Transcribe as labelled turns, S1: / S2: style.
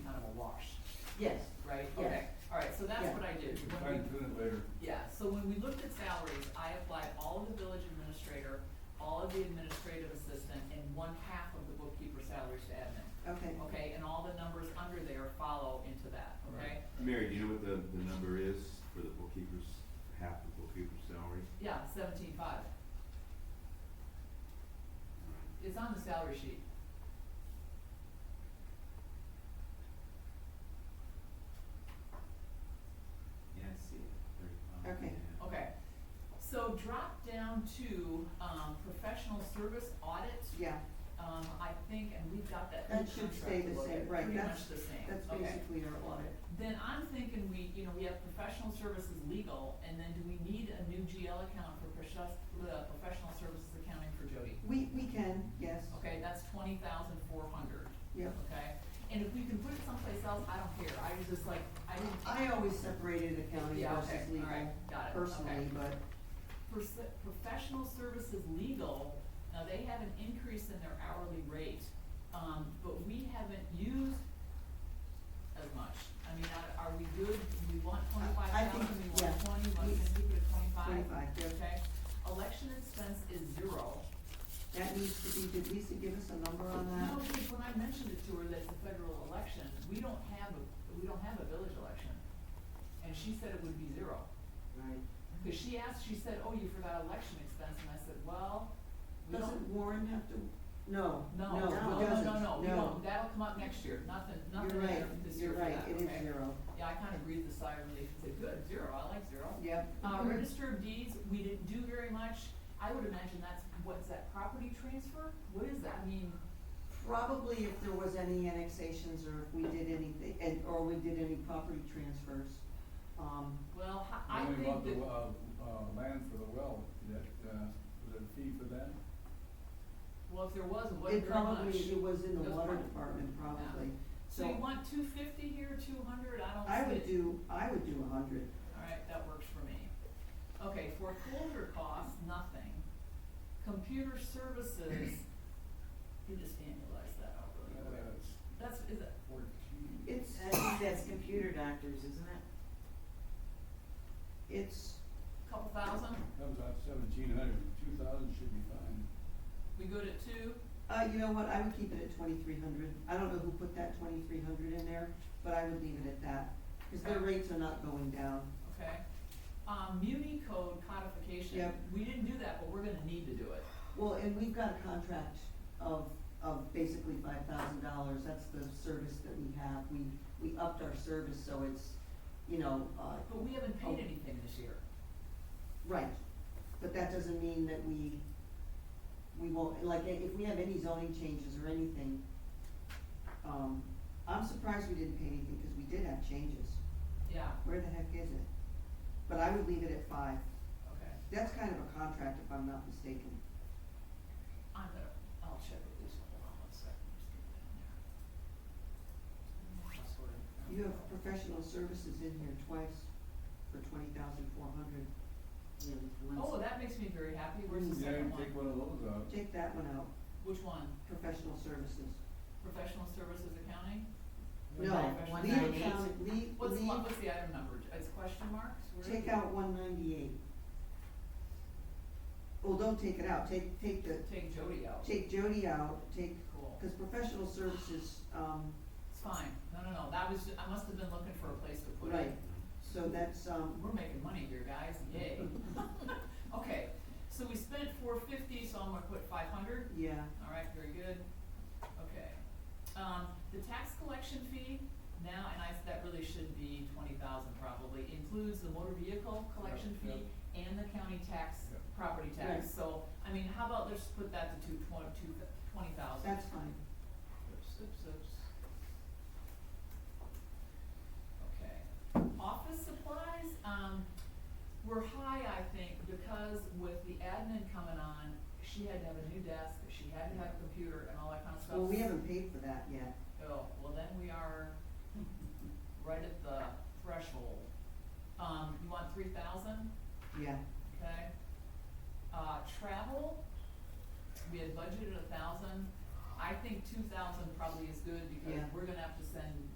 S1: Yes,
S2: right?
S1: Yes.
S2: Okay, all right, so that's
S1: Yeah.
S2: what I
S3: We
S2: did.
S3: can
S2: When we-
S3: fine tune it later.
S2: Yeah, so when we looked at salaries, I applied all of the village administrator, all of the administrative assistant, and one half of the bookkeeper salaries to admin.
S1: okay.
S2: Okay, and all the numbers under there follow into that, okay?
S4: Mary, do you know what the, the number is for the bookkeeper's, half the bookkeeper's salary?
S2: Yeah, seventeen five. It's on the salary sheet.
S4: Yeah, I see it, thirty-five.
S1: Okay.
S2: Okay, so drop down to, um, professional service audit,
S1: Yeah,
S2: um, I think, and we've got that
S1: That
S2: new
S1: should stay
S2: contract to
S1: the
S2: look
S1: same,
S2: at,
S1: right,
S2: pretty
S1: that's-
S2: much the same,
S1: that's
S2: okay.
S1: basically our audit.
S2: Then I'm thinking we, you know, we have professional services legal, and then do we need a new GL account for professional, uh, professional services accounting for Jody?
S1: We, we can, yes,
S2: Okay, that's twenty thousand four hundred,
S1: yeah.
S2: okay? And if we can put it someplace else, I don't care, I was just like, I didn't.
S1: I always separated accounting
S2: Yeah, okay,
S1: versus
S2: all
S1: legal
S2: right, got it,
S1: personally,
S2: okay.
S1: but,
S2: Pers- Professional services legal, now they have an increase in their hourly rate, um, but we haven't used as much. I mean, are, are we good, do we want twenty-five
S1: I- I think,
S2: thousand, we want
S1: yeah.
S2: twenty, want
S1: We-
S2: to keep it at twenty-five?
S1: 25, yeah.
S2: Okay, election expense is zero.
S1: That needs to be, did Lisa give us a number on
S2: No,
S1: that?
S2: because when I mentioned it to her that it's a federal election, we don't have, a we don't have a village election. And she said it would be zero.
S1: Right.
S2: Because she asked, she said, oh, you forgot election expense, and I said, well, we don't.
S1: Doesn't Warren have to, no,
S2: No, no,
S1: no, it
S2: no,
S1: doesn't,
S2: no, no, we don't,
S1: no.
S2: that'll come up next year, nothing, nothing
S1: You're right,
S2: there this year
S1: you're
S2: for
S1: right,
S2: that,
S1: it is
S2: okay.
S1: zero.
S2: Yeah, I kind of breathed a sigh of relief and said, good, zero, I like zero.
S1: Yep.
S2: Uh, register of deeds, we didn't do very much, I would imagine that's, what's that, property transfer? What is that, I mean,
S1: Probably if there was any annexations or if we did anything, and, or we did any property transfers, um,
S2: well, ho- I
S3: Then
S2: think
S3: we bought
S2: that,
S3: the, uh, uh, land for the well, that, uh, was there a fee for that?
S2: well, if there was, it wasn't
S1: It
S2: very much.
S1: probably, it was in
S2: It
S1: the
S2: was
S1: water
S2: part-
S1: department probably,
S2: So you
S1: so
S2: want two fifty here, two hundred, I don't see
S1: I
S2: it.
S1: would do, I would do a hundred.
S2: Alright, that works for me. Okay, foreclosure costs, nothing. Computer services, you just annualize that out really quick.
S3: Uh, it's
S2: That's, is it,
S3: fourteen.
S1: It's,
S5: I think that's computer doctors, isn't it?
S1: it's,
S2: a couple thousand?
S3: Comes out seventeen hundred, two thousand should be fine.
S2: We good at two?
S1: uh, you know what, I would keep it at twenty-three hundred, I don't know who put that twenty-three hundred in there, but I would leave it at that, cause their
S2: Okay.
S1: rates are not going down.
S2: Okay. Um, muni code codification.
S1: Yep.
S2: We didn't do that, but we're gonna need to do it.
S1: Well, and we've got a contract of, of basically five thousand dollars, that's the service that we have, we, we upped our service, so it's, you know, uh,
S2: But we haven't paid
S1: Oh.
S2: anything this year.
S1: Right, but that doesn't mean that we, we won't, like, if we have any zoning changes or anything, um, I'm surprised we didn't pay anything, cause we did have changes,
S2: Yeah,
S1: where the heck is it? But I would leave it at five,
S2: okay.
S1: that's kind of a contract if I'm not mistaken.
S2: I'm gonna, I'll check with Lisa, hold on one second, just get it down there. Password.
S1: You have professional services in here twice for twenty thousand four hundred,
S5: Yeah, the ones-
S2: Oh, that makes me very happy, where's the
S3: Yeah, you
S2: second
S3: can
S2: one?
S3: take one of those out.
S1: take that one out,
S2: Which one?
S1: professional services.
S2: Professional services accounting?
S1: No,
S2: One
S5: ninety
S1: leave
S5: eight.
S1: account, leave,
S2: What's, the-
S1: leave,
S2: what's the item number? It's question marks? Where is
S1: Take
S2: it?
S1: out one ninety-eight. Well, don't take it out, take, take the,
S2: Take Jody out.
S1: take Jody out, take,
S2: Cool.
S1: cause professional services, um,
S2: It's fine. No, no, no. That was, ju- I must have been looking for a place to put it.
S1: right, so that's, um,
S2: We're making money here, guys. Yay. Okay, so we spent four fifty, so I'm gonna put five hundred.
S1: yeah,
S2: All right, very good. Okay. Um, the tax collection fee now, and I, that really should be twenty thousand probably, includes the motor vehicle collection
S3: Yeah,
S2: fee and the county tax,
S3: Yeah.
S2: property
S1: Right.
S2: tax. So, I mean, how about let's put that to two, twenty, two, twenty thousand?
S1: that's fine.
S2: Oops, oops, oops. Okay. Office supplies, um, were high, I think, because with the admin coming on, she had to have a new desk, she had to have a computer and all that kind of stuff.
S1: Well, we haven't paid for that yet,
S2: Oh, well then we are right at the threshold. Um, you want three thousand,
S1: yeah,
S2: okay? Uh, travel, we had budgeted a thousand, I think two thousand probably is good because
S1: Yeah.
S2: we're gonna have to send